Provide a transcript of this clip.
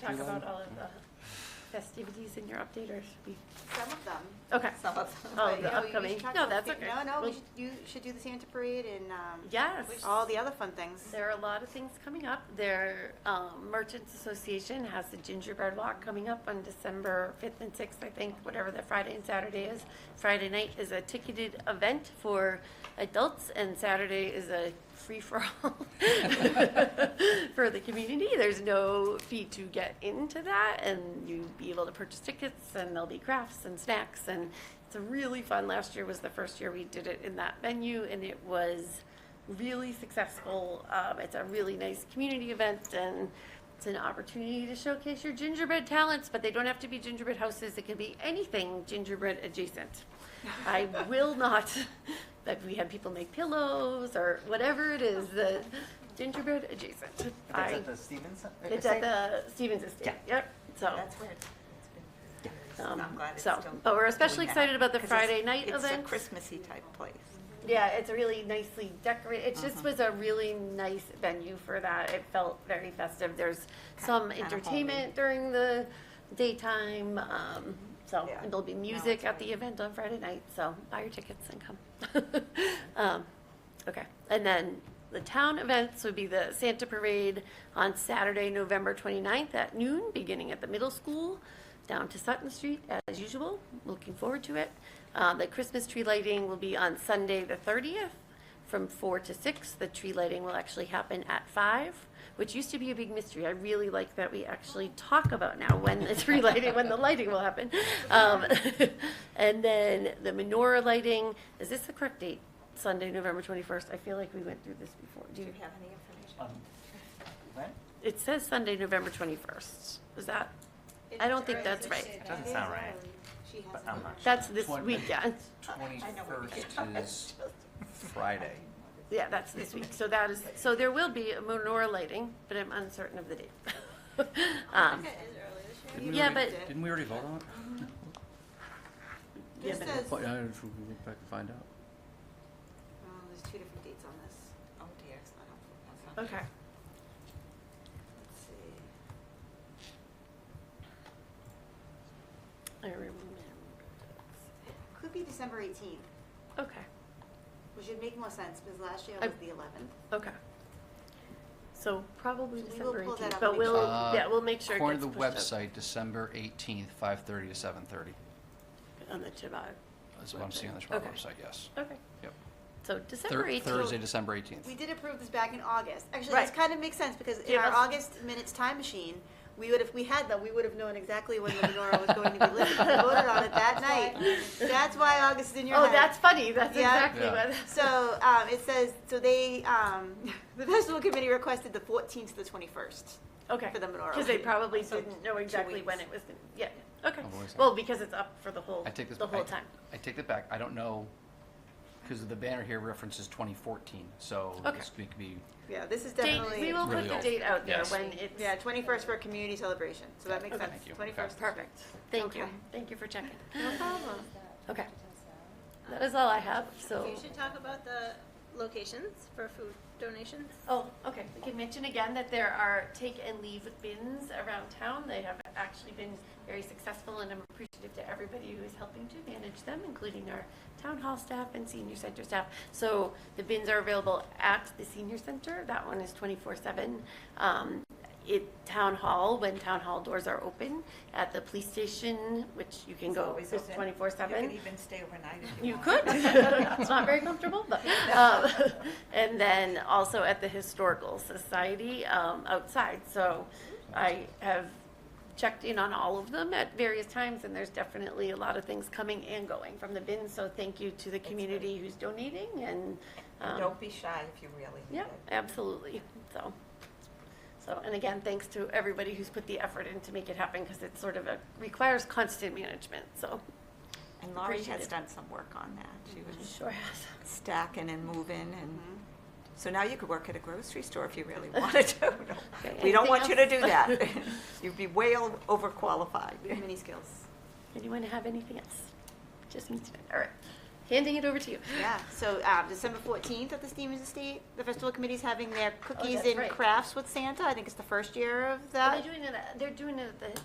talk You about want- all of the festivities in your update, or should we? Some of them. Okay. Some of them. Oh, but, the you know, you- you upcoming. should talk No, about that's the- okay. No, no, We'll- we should, you should do the Santa Parade and, um, Yes. all the other fun things. There are a lot of things coming up. Their um, Merchants Association has the Gingerbread Walk coming up on December 5th and 6th, I think, whatever the Friday and Saturday is. Friday night is a ticketed event for adults, and Saturday is a free-for-all for the community. There's no fee to get into that, and you'll be able to purchase tickets, and there'll be crafts and snacks, and it's a really fun. Last year was the first year we did it in that venue, and it was really successful. Um, it's a really nice community event and it's an opportunity to showcase your gingerbread talents, but they don't have to be gingerbread houses. It can be anything gingerbread adjacent. I will not, that we had people make pillows or whatever it is, the gingerbread adjacent. That's I, at the Stevens? uh, it's at estate? the Stevens Estate, yep, so. That's where it's it's been. very- um, I'm glad it's so- still but we're especially doing that, excited about the 'cause it's- Friday night It's a event. Christmassy type place. Yeah, it's really nicely decorated. It just was a really nice venue for that. It felt very festive. There's some kinda entertainment homey. during the daytime. Um, so Yeah. and there'll be No, music it's at the event on Friday night. So buy your tickets and come. um, okay, and then the town events would be the Santa Parade on Saturday, November 29th at noon, beginning at the middle school down to Sutton Street as usual. Looking forward to it. Uh, the Christmas tree lighting will be on Sunday, the 30th, from 4 to 6. The tree lighting will actually happen at 5, which used to be a big mystery. I really like that we actually talk about now when the tree lighting, when the lighting will happen. Um, and then the menorah lighting, is this the correct date? Sunday, November 21st. I feel like we went through this before. Do Do you, you have any information? Um, When? it says Sunday, November 21st. Is that? I don't think that's right. Doesn't sound right, She but hasn't. um, I'm not sure. That's this Twen- weekend. I know what we Twenty-first did. is Friday. Yeah, that's this week. So that is, so there will be a menorah lighting, but I'm uncertain of the date. Um, It is early this year. Didn't we Yeah, already- but- Didn't we already vote on it? Yeah, This but- says, Well, oh, yeah, I should go back and find out. there's two different dates on this. Oh dear, it's not helpful. That's not- Okay. Let's see. I remember. Could be December eighteenth, Okay, which would make more sense because last year I- was the eleventh. okay. So probably So we will December pull that eighteenth, up but and make we'll, sure. Uh, Oh, yeah, we'll make sure it According gets to the pushed up website, December eighteenth, five-thirty to seven-thirty. on the Chabad. That's what I'm seeing on the Chicago Okay. website, yes. Okay, Yep. so Thir- December eighteenth. Thursday, December eighteenth. We did approve this back in August. Actually, this Right. kind of makes sense because in Give our us- August minutes time machine, we would, if we had them, we would have known exactly when the menorah was going to be lit. We voted on it that night. That's why August is in your Oh, head. that's funny. That's Yeah. exactly Yeah. what. So, um, it says, so they, um, the festival committee requested the fourteenth to the twenty-first. Okay. for the menorah Because they lighting. probably So didn't know two exactly when it weeks. was, gonna- yeah, okay. Oh, wait a Well, because it's up for the whole, I take this. the whole I- time. I take that back. I don't know, because the banner here references twenty fourteen, so Okay. this could be, Yeah, this is Date, definitely. we will put Really the old. date out there Yes. when it's. Yeah, twenty-first for a community celebration, so that makes Okay. sense. Thank you. Twenty-first. Perfect. Thank you. Okay. Uh-huh. Thank you for checking. No problem. Okay. That is all I have, so. You should talk about the locations for food donations. Oh, okay. We can mention again that there are take and leave bins around town. They have actually been very successful and I'm appreciative to everybody who is helping to manage them, including our town hall staff and senior center staff. So the bins are available at the senior center. That one is twenty-four seven. Um, it, town hall, when town hall doors are open, at the police station, which you can go, always it's open. twenty-four seven. even stay overnight if You could. It's not very comfortable, but, um, and then also at the Historical Society, um, outside. So I have checked in on all of them at various times and there's definitely a lot of things coming and going from the bin. So thank you to the community who's donating and, um, be shy if you really yeah, absolutely. So, so, and again, thanks to everybody who's put the effort in to make it happen because it sort of a- requires constant management, so. And Laurie Appreciate has it. Mm-hmm. done some work on that. She was Sure has. stacking and moving and, Mm-hmm. so now you could work at a grocery store if you really wanted to. Okay, We anything don't want you to do else? that. You'd be way o- overqualified. We have many skills. Anyone have anything else? Just me tonight, all right. handing it over to you. Yeah, so um, December 14th at the Stevens Estate, the festival committee's having their cookies Oh, that's and right. crafts with Santa. I think it's the first year of Are that. they doing it, at- they're doing it at the